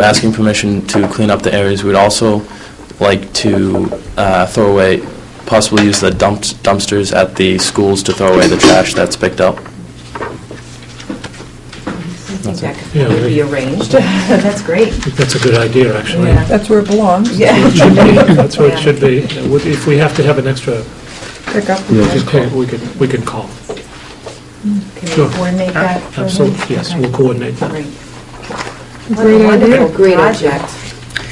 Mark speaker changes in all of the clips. Speaker 1: We're asking permission to clean up the areas. We'd also like to uh, throw away, possibly use the dump- dumpsters at the schools to throw away the trash that's picked up.
Speaker 2: I think that
Speaker 3: Yeah,
Speaker 2: could be
Speaker 3: we-
Speaker 2: arranged. That's great.
Speaker 3: I think that's a good idea, actually.
Speaker 2: Yeah.
Speaker 4: That's where it belongs.
Speaker 3: It
Speaker 2: Yeah.
Speaker 3: should be- That's where
Speaker 2: Yeah.
Speaker 3: it should be. If we have to have an extra,
Speaker 4: Pick up.
Speaker 3: just call- we can, we can call.
Speaker 2: Can
Speaker 3: Sure.
Speaker 2: we coordinate that for him?
Speaker 3: Absolutely, yes,
Speaker 2: Okay.
Speaker 3: we'll coordinate that.
Speaker 2: Great. What a
Speaker 5: Great idea.
Speaker 2: wonderful project.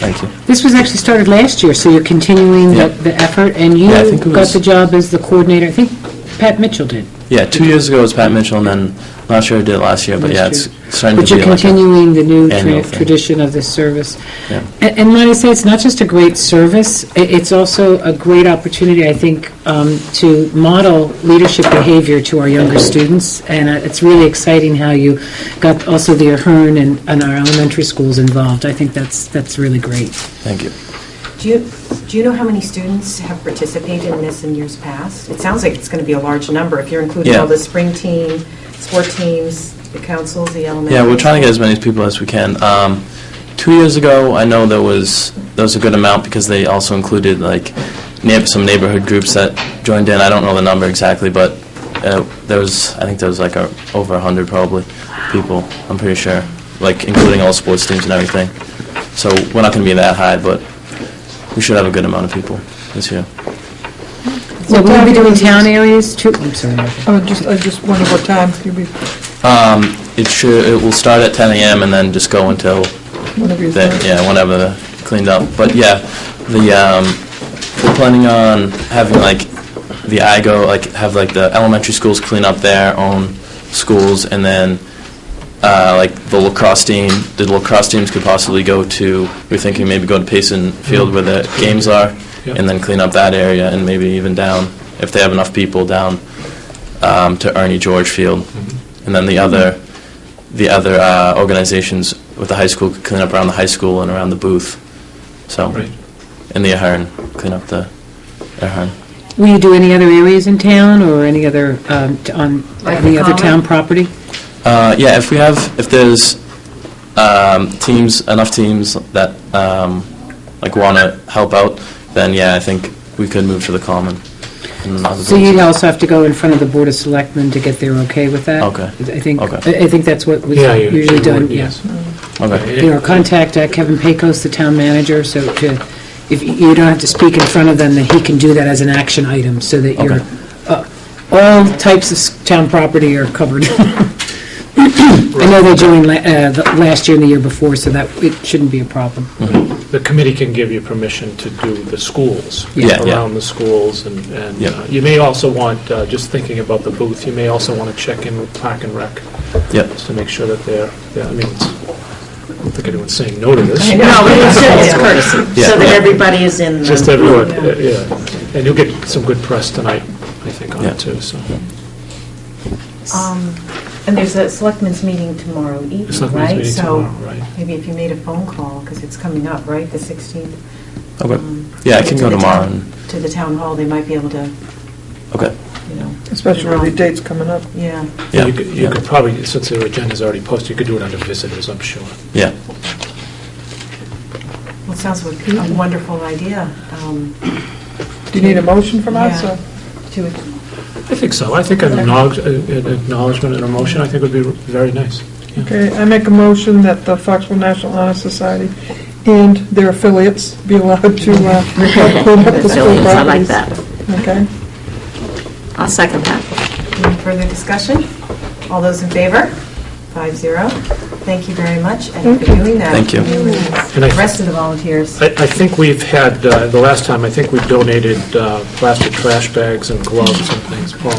Speaker 1: Thank you.
Speaker 5: This was actually started last year, so you're continuing
Speaker 1: Yeah.
Speaker 5: the the effort, and you
Speaker 1: Yeah, I think it
Speaker 5: got
Speaker 1: was-
Speaker 5: the job as the coordinator, I think Pat Mitchell did.
Speaker 1: Yeah, two years ago was Pat Mitchell, and then, not sure who did it last year, but yeah,
Speaker 5: Last
Speaker 1: it's
Speaker 5: year.
Speaker 1: starting to
Speaker 5: But
Speaker 1: be
Speaker 5: you're
Speaker 1: like a...
Speaker 5: continuing the new tra-
Speaker 1: annual thing.
Speaker 5: tradition of this service.
Speaker 1: Yeah.
Speaker 5: A- And might I say, it's not just a great service, i- it's also a great opportunity, I think, um, to model leadership behavior to our younger students, and uh, it's really exciting how you got also the Ahern and and our elementary schools involved. I think that's, that's really great.
Speaker 1: Thank you.
Speaker 2: Do you, do you know how many students have participated in this in years past? It sounds like it's going to be a large number, if you're including
Speaker 1: Yeah.
Speaker 2: all the spring team, sport teams, the councils, the elementary.
Speaker 1: Yeah, we're trying to get as many people as we can. Um, Two years ago, I know there was, there was a good amount because they also included like neigh- some neighborhood groups that joined in. I don't know the number exactly, but uh, there was, I think there was like a- over 100 probably people, I'm pretty sure, like including all sports teams and everything. So we're not going to be that high, but we should have a good amount of people this year.
Speaker 5: So will we be doing town areas too? I'm sorry, Martha.
Speaker 4: Oh, just, I just wonder what time, you'll be-
Speaker 1: Um, It should, it will start at 10 a.m. and then just go until
Speaker 4: whenever you're
Speaker 1: that, yeah, whenever cleaned up. But yeah, the, um, we're planning on having like the IGO, like have like the elementary schools clean up their own schools and then, uh, like the lacrosse team, the lacrosse teams could possibly go to, we're thinking maybe go to Payson Field where the games are
Speaker 3: Yep.
Speaker 1: and then clean up that area and maybe even down, if they have enough people, down, um, to Ernie George Field.
Speaker 3: Mm-hmm.
Speaker 1: And then the other, the other uh, organizations with the high school could clean up around the high school and around the booth. So,
Speaker 3: Right.
Speaker 1: and the Ahern, clean up the Ahern.
Speaker 5: Will you do any other areas in town or any other, um, t- on
Speaker 2: Like
Speaker 5: any
Speaker 2: the
Speaker 5: other
Speaker 2: common?
Speaker 5: town property?
Speaker 1: Uh, yeah, if we have, if there's um, teams, enough teams that um, like want to help out, then yeah, I think we could move to the common. and other
Speaker 5: So
Speaker 1: things.
Speaker 5: you'd also have to go in front of the Board of Selectmen to get their okay with that?
Speaker 1: Okay.
Speaker 5: I think,
Speaker 1: Okay.
Speaker 5: I I think that's what was
Speaker 3: Yeah, you-
Speaker 5: usually
Speaker 3: you
Speaker 5: done,
Speaker 3: would,
Speaker 5: yes.
Speaker 1: Okay.
Speaker 5: Or contact uh, Kevin Pecos, the town manager, so to, if you you don't have to speak in front of them, that he can do that as an action item, so that you're,
Speaker 1: Okay.
Speaker 5: uh, all types of s- town property are covered. I know they joined la- uh, the- last year and the year before, so that, it shouldn't be a problem.
Speaker 3: The committee can give you permission to do the schools.
Speaker 1: Yeah, yeah.
Speaker 3: Around the schools, and, and
Speaker 1: Yep.
Speaker 3: uh, you may also want, uh, just thinking about the booth, you may also want to check in with Park and Rec,
Speaker 1: Yep.
Speaker 3: just to make sure that they're, yeah, I mean, it's, I don't think anyone's saying no to this.
Speaker 6: No, but it's it's courtesy,
Speaker 1: Yeah,
Speaker 6: so that
Speaker 1: yeah.
Speaker 6: everybody is in. the-
Speaker 3: Just everyone, uh, yeah. And you'll get some good press tonight, I think, on
Speaker 1: Yeah.
Speaker 3: it, too, so.
Speaker 2: Um, And there's a selectmen's meeting tomorrow evening,
Speaker 3: Selectmen's
Speaker 2: right?
Speaker 3: meeting tomorrow, right.
Speaker 2: So maybe if you made a phone call, because it's coming up, right, the 16th?
Speaker 1: Okay.
Speaker 2: um,
Speaker 1: Yeah, I can
Speaker 2: to
Speaker 1: go
Speaker 2: the
Speaker 1: tomorrow
Speaker 2: town-
Speaker 1: and-
Speaker 2: To the town hall, they might be able to,
Speaker 1: Okay.
Speaker 2: you know,
Speaker 4: Especially with the dates coming up.
Speaker 2: yeah.
Speaker 1: Yeah.
Speaker 3: You could- You could probably, since their agenda's already posted, you could do it under visitors, I'm sure.
Speaker 1: Yeah.
Speaker 2: Well, it sounds like
Speaker 1: Um,
Speaker 2: a wonderful idea. um,
Speaker 4: Do you need a motion from us,
Speaker 2: Yeah.
Speaker 4: or?
Speaker 2: To
Speaker 3: I think so. I think an acknowledge- uh, an acknowledgement and a motion, I think would be very nice. Yeah.
Speaker 4: Okay, I make a motion that the Foxborough National Honor Society and their affiliates be allowed to uh, clean up the school
Speaker 6: Affiliates, I like
Speaker 4: properties.
Speaker 6: that.
Speaker 4: Okay?
Speaker 6: I'll second that.
Speaker 2: Any further discussion? All those in favor? Five zero. Thank you very much, and for doing that.
Speaker 1: Thank you.
Speaker 2: and
Speaker 3: And I-
Speaker 2: The rest of the volunteers.
Speaker 3: I I think we've had, uh, the last time, I think we donated uh, plastic trash bags and gloves and things, Paul.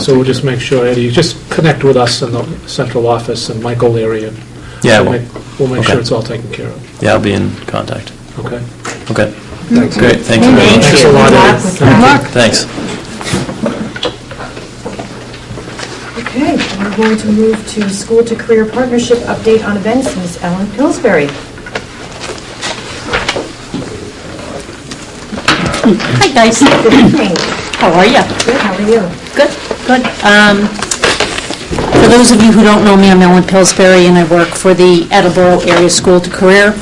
Speaker 3: So we'll just make sure, Eddie, you just connect with us in the central office and Michael Leary. and
Speaker 1: Yeah, I
Speaker 3: we'll
Speaker 1: will.
Speaker 3: make- We'll make
Speaker 1: Okay.
Speaker 3: sure it's all taken care of,
Speaker 1: Yeah, I'll be in contact.
Speaker 3: okay?
Speaker 1: Okay. Great, thank you very
Speaker 6: Thank
Speaker 1: much.
Speaker 3: Thanks a lot,
Speaker 2: Good
Speaker 3: Eddie.
Speaker 2: luck with
Speaker 3: Thank
Speaker 2: that.
Speaker 3: you.
Speaker 1: Thanks.
Speaker 2: Okay, we're going to move to school to career partnership update on events, Ms. Ellen Pillsbury.
Speaker 7: Hi, guys.
Speaker 2: Good evening.
Speaker 7: How are you?
Speaker 2: Good, how are you?
Speaker 7: Good, good. Um, For those of you who don't know me, I'm Ellen Pillsbury, and I work for the Attleboro Area School to Career